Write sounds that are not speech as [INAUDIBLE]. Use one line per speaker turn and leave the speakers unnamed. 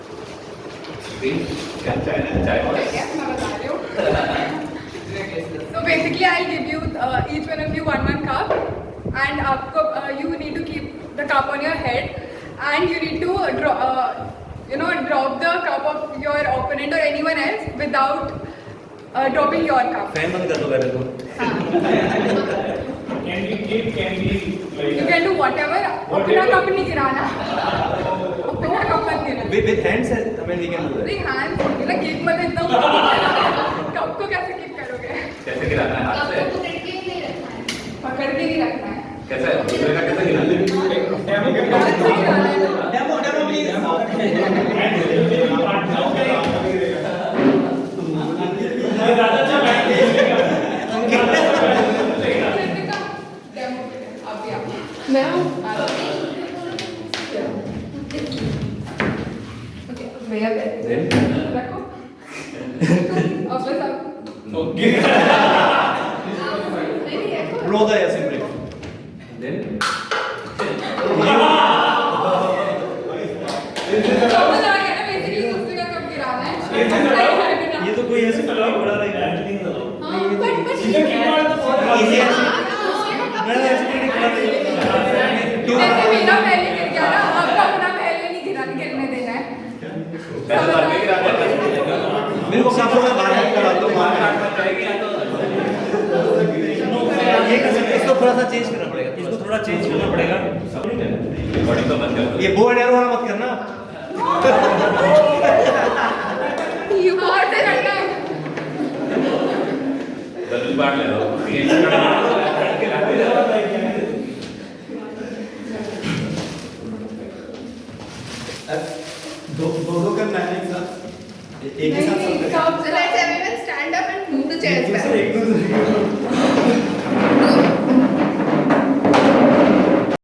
See, that's China, China.
So basically, I'll give you uh, each one of you one one cup, and आपको uh, you need to keep the cup on your head, and you need to uh, draw, uh, you know, drop the cup of your opponent or anyone else without uh, dropping your cup.
Fan बंद कर दो पहले तो
Can we give, can we
You
like?
can do whatever. अपना
Whatever.
cup नहीं गिराना. अपना cup मत गिराना.
With hands I mean we can do
नहीं hand गिरा केक मत इतना cup को कैसे केक करोगे?
कैसे गिराना है हाथ से
पकड़ के नहीं रखना है.
[LAUGHS] कैसे दूसरे का कैसे गिराना है
हाथ से गिराना है तो.
Demo demo please
And will they be partners? ये ज्यादा अच्छा बैठ
कृतिका, demo के लिए, आप भी आओ. आ जाओ. Okay, भैया बैठे. रखो. अब बस आप-
Okay.
नहीं, नहीं, रखो.
ब्लो द ऐसे ब्रेक
Then,
कब बता रहे हैं ना, basically दूसरे का कब गिराना है.
ये तो लगाओ,
हाँ, गिराना.
ये तो कोई ऐसे
Hello.
फटाफट बड़ा रहा है नहीं लगाओ।
हाँ, but- but-
You can keep on the phone.
Easy
हाँ,
ऐसे
दूसरे का कब
मैं ऐसे
गिराना है.
नहीं खड़ा
जैसे मेरा पहले गिर गया ना, आपका अपना पहले नहीं गिरा- गिरने देना है.
पैसे मार के गिराना है
मेरे को सब लोग बाहर करा दो बाहर ये कर सकते हैं, इसको थोड़ा सा चेंज करना पड़ेगा इसको थोड़ा चेंज करना पड़ेगा
बॉडी तो मत कर
ये बो एंड एरो वाला मत करना
You are the runner.
बदल बांट ले दो ये गिराना है
दो दो दो करना है एक साथ एक ही
नहीं,
साथ
नहीं,
सब
सब- let's everyone stand up and move the chairs back.
एक दूसरे